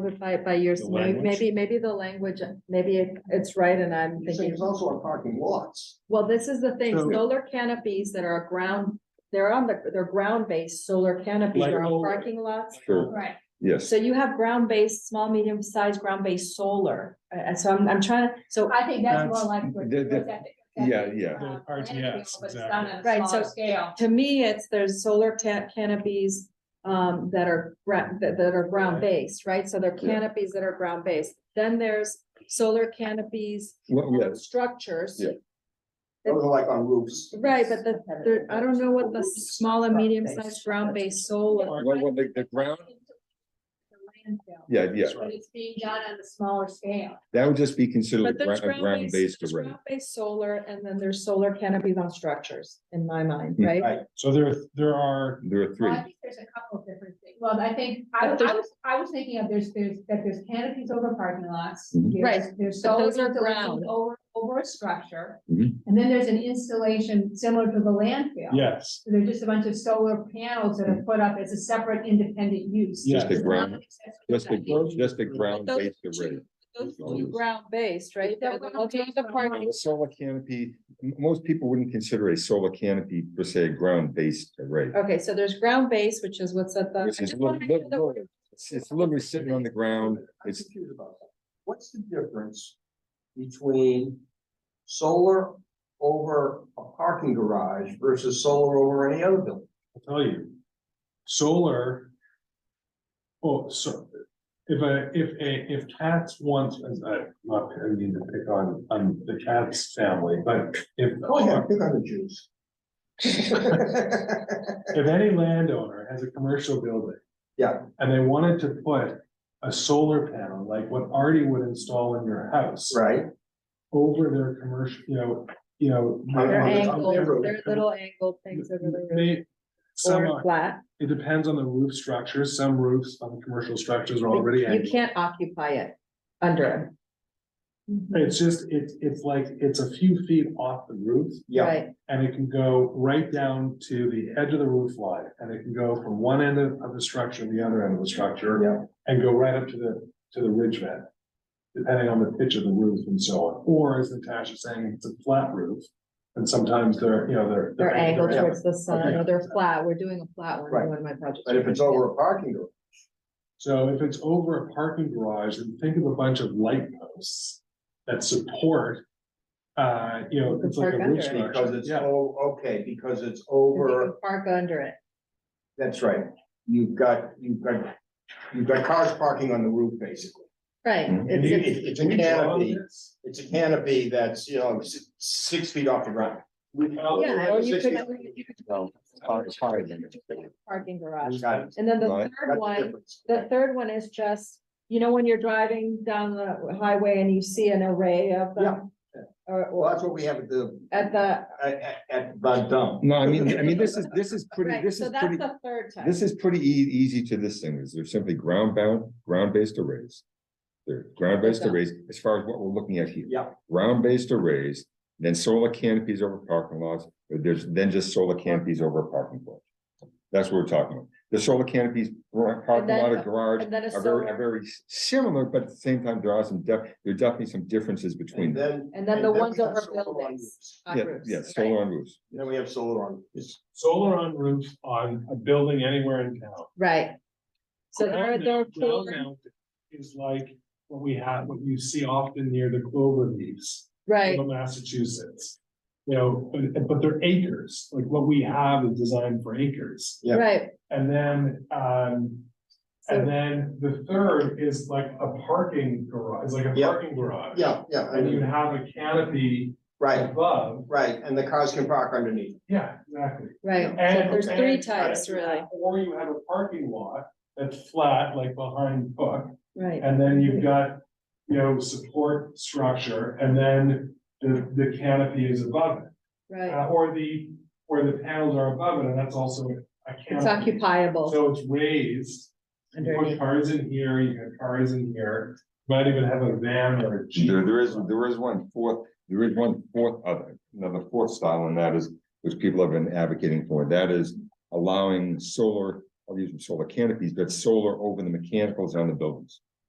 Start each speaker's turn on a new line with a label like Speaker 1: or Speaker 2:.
Speaker 1: simplify it by years,
Speaker 2: The
Speaker 1: May-
Speaker 2: language?
Speaker 1: maybe, maybe the language, maybe it- it's right and I'm
Speaker 3: You're saying
Speaker 1: thinking.
Speaker 3: it's also on parking lots.
Speaker 1: Well, this is the thing,
Speaker 2: So-
Speaker 1: solar canopies that are ground, they're on the, they're ground-based solar canopies,
Speaker 2: Like
Speaker 1: they're on
Speaker 2: solar.
Speaker 1: parking lots.
Speaker 4: Sure.
Speaker 5: Right,
Speaker 4: Yes,
Speaker 1: So you have ground-based, small, medium-sized, ground-based solar, Uh, and so I'm, I'm trying, to so,
Speaker 5: I think that's more
Speaker 2: That's-
Speaker 5: like. what-
Speaker 4: the- the-
Speaker 5: what's that-
Speaker 4: yeah, yeah.
Speaker 5: um,
Speaker 2: The RTS,
Speaker 5: But it's done on
Speaker 1: Right,
Speaker 5: a
Speaker 1: so-
Speaker 5: smaller scale.
Speaker 1: to me, it's, there's solar ta- canopies. Um, that are, gra- that, that are ground-based, right, so they're
Speaker 4: Yeah.
Speaker 1: canopies that are ground-based, then there's solar canopies.
Speaker 4: Well,
Speaker 1: um,
Speaker 4: yes,
Speaker 1: Structures.
Speaker 4: Yeah.
Speaker 3: Those are like on roofs.
Speaker 1: Right, but the, the- I don't know what the small and medium sized
Speaker 3: Ground-based.
Speaker 1: ground based solar,
Speaker 4: well, well, the, the ground,
Speaker 5: The landfill,
Speaker 4: yeah, yeah,
Speaker 5: But it's being done on a smaller scale.
Speaker 4: that would just be
Speaker 1: but
Speaker 4: considered
Speaker 1: there's
Speaker 4: a ground
Speaker 1: ground based,
Speaker 4: based array.
Speaker 1: based solar, and then there's solar canopies on structures, in my mind,
Speaker 4: Hmm.
Speaker 1: right?
Speaker 3: Right,
Speaker 2: So there, there are,
Speaker 4: There are
Speaker 5: Well,
Speaker 4: three.
Speaker 5: I think there's a couple of different things. Well, I think, I, I
Speaker 1: But there's-
Speaker 5: was, I was thinking of there's, there's, that there's canopies over parking lots.
Speaker 4: Mhm.
Speaker 5: there's-
Speaker 1: Right,
Speaker 5: There's
Speaker 1: but
Speaker 5: solar
Speaker 1: those are ground.
Speaker 5: installations over, over a structure.
Speaker 4: Mhm.
Speaker 5: And then there's an installation similar to the landfill.
Speaker 2: yes,
Speaker 5: So They're just a bunch of solar panels that are put up as a separate independent use.
Speaker 2: Just
Speaker 4: a
Speaker 5: It's not
Speaker 4: ground-
Speaker 5: an accessory
Speaker 4: Just a,
Speaker 5: building.
Speaker 2: Those-
Speaker 4: just a
Speaker 2: those
Speaker 4: ground based
Speaker 1: two-
Speaker 4: array.
Speaker 1: Those
Speaker 4: As long
Speaker 1: two
Speaker 4: as-
Speaker 1: ground based, right?
Speaker 5: They're
Speaker 1: Those are
Speaker 5: ground-based,
Speaker 1: the
Speaker 5: but
Speaker 1: part-
Speaker 4: A solar canopy, m- most people wouldn't consider a solar canopy per se a ground based array.
Speaker 1: Okay, so there's ground based, which is what's at the. I
Speaker 4: Which is
Speaker 1: just wanna
Speaker 4: lit-
Speaker 1: make
Speaker 4: lit-
Speaker 1: sure that we're-
Speaker 4: lit- It's, it's literally sitting on the ground.
Speaker 3: I'm
Speaker 4: It's,
Speaker 3: confused about that. What's the difference between solar over a parking garage versus solar over any other building?
Speaker 2: I'll tell you. Solar. Oh, so if a, if a, if cats wants, as I, not, I mean to pick on, on the cat's family, but if.
Speaker 3: Go ahead, pick on the Jews.
Speaker 2: If any landowner has a commercial building.
Speaker 3: Yeah.
Speaker 2: And they wanted to put a solar panel, like what Artie would install in your house.
Speaker 3: Right,
Speaker 2: Over their commercial, you know, you know.
Speaker 3: On
Speaker 1: They're
Speaker 3: their
Speaker 1: angled,
Speaker 3: roof.
Speaker 1: they're little angled things over the roof,
Speaker 2: They, some,
Speaker 1: or
Speaker 2: are-
Speaker 1: flat.
Speaker 2: it depends on the roof structure, some roofs on commercial structures are already
Speaker 1: You
Speaker 2: angled.
Speaker 1: can't occupy it under
Speaker 2: It's just, it's, it's like, it's a few feet off the roof
Speaker 1: it,
Speaker 3: yeah,
Speaker 1: right?
Speaker 2: and it can go right down to the edge of the roof line. And it can go from one end of, of the structure to the other end of the structure.
Speaker 3: Yeah.
Speaker 2: And go right up to the, to the ridge vent, depending on the pitch of the roof and so on. Or as Natasha's saying, it's a flat roof. And sometimes they're, you know, they're.
Speaker 1: They're angled
Speaker 3: Yeah.
Speaker 1: towards the sun,
Speaker 2: Okay.
Speaker 1: or they're flat, we're doing a flat one,
Speaker 3: Right.
Speaker 1: in one of my projects.
Speaker 3: but if it's over a parking garage,
Speaker 2: So if it's over a parking garage, then think of a bunch of light posts that support. Uh, you know, it's like a
Speaker 1: Park under it.
Speaker 2: roof structure.
Speaker 3: because it's,
Speaker 2: Yeah.
Speaker 3: oh, okay, because it's
Speaker 1: And you
Speaker 3: over.
Speaker 1: can Park under it.
Speaker 3: That's right. You've got, you've got, you've got cars parking on the roof, basically.
Speaker 1: Right,
Speaker 4: Mhm.
Speaker 1: it's,
Speaker 3: It-
Speaker 1: it's,
Speaker 3: it- It's a
Speaker 2: Can we draw
Speaker 3: canopy,
Speaker 2: this?
Speaker 3: it's a canopy that's, you know, si- six feet off the ground.
Speaker 1: yeah, or you
Speaker 3: Six
Speaker 1: could.
Speaker 3: feet.
Speaker 1: you could-
Speaker 4: No, park- park in it.
Speaker 1: Parking garage,
Speaker 3: Got it.
Speaker 1: and then the
Speaker 4: Right.
Speaker 3: That's
Speaker 1: third
Speaker 3: the
Speaker 1: one,
Speaker 3: difference.
Speaker 1: the third one is just, you know, when you're driving down the highway and you see an array of them. Or,
Speaker 3: Well,
Speaker 1: or
Speaker 3: that's what we have at the,
Speaker 1: at the,
Speaker 3: at, at- at the dump.
Speaker 4: No, I mean, I mean, this is, this is pretty,
Speaker 1: right,
Speaker 4: this
Speaker 1: so
Speaker 4: is
Speaker 1: that's
Speaker 4: pretty,
Speaker 1: the third type.
Speaker 4: this is pretty ea- easy to this thing. Is they're simply ground bound, ground based arrays. They're ground based
Speaker 1: Okay.
Speaker 4: arrays as far as what we're looking at here.
Speaker 3: Yeah.
Speaker 4: Ground based arrays, then solar canopies over parking lots, or there's then just solar canopies over a parking lot. That's what we're talking about. The solar canopies, gar- parking lot or
Speaker 1: then-
Speaker 4: garage
Speaker 1: And then a
Speaker 4: are very, are
Speaker 1: solar,
Speaker 4: very s- similar, but at the same time, there are some def, there are definitely some differences between.
Speaker 3: And
Speaker 4: them.
Speaker 3: then.
Speaker 1: and then the
Speaker 3: we
Speaker 1: ones
Speaker 3: have
Speaker 1: over
Speaker 3: solar on
Speaker 1: buildings.
Speaker 3: roofs.
Speaker 1: on
Speaker 4: Yeah,
Speaker 1: roofs,
Speaker 4: yeah,
Speaker 1: right?
Speaker 4: solar on roofs.
Speaker 3: Then we have solar on. roofs.
Speaker 2: Solar on roof on a building anywhere in town.
Speaker 1: Right. So there are,
Speaker 2: Ground
Speaker 1: there are
Speaker 2: mount- ground
Speaker 1: four,
Speaker 2: mount Is like what we have, what you see often near the clover leaves
Speaker 1: right,
Speaker 2: in Massachusetts. You know, but, but they're acres, like what we have is designed for acres.
Speaker 3: Yeah.
Speaker 1: right,
Speaker 2: And then, um,
Speaker 1: so,
Speaker 2: and then the third is like a parking garage, is like a
Speaker 3: Yeah.
Speaker 2: parking garage.
Speaker 3: Yeah, yeah, I
Speaker 2: And you
Speaker 3: mean,
Speaker 2: have a canopy
Speaker 3: right,
Speaker 2: above,
Speaker 3: right, and the cars can park underneath.
Speaker 2: yeah, exactly.
Speaker 1: right, so
Speaker 2: And-
Speaker 1: there's three
Speaker 2: and-
Speaker 1: types, really,
Speaker 2: Or you have a parking lot that's flat, like behind Buck,
Speaker 1: right.
Speaker 2: And then you've got, you know, support structure, and then the, the canopy is above it,
Speaker 1: Right,
Speaker 2: uh, or the, or the panels are above it, and that's also a
Speaker 1: it's
Speaker 2: canopy.
Speaker 1: occupiable
Speaker 2: So it's raised, you put
Speaker 1: underneath,
Speaker 2: cars in here, you got cars in here, might even have a van or a jeep.
Speaker 4: There, there is, there is one fourth, there is one fourth other, another fourth style, and that is, which people have been advocating for, that is allowing solar, I'll use them solar canopies, but solar over the mechanicals on the buildings.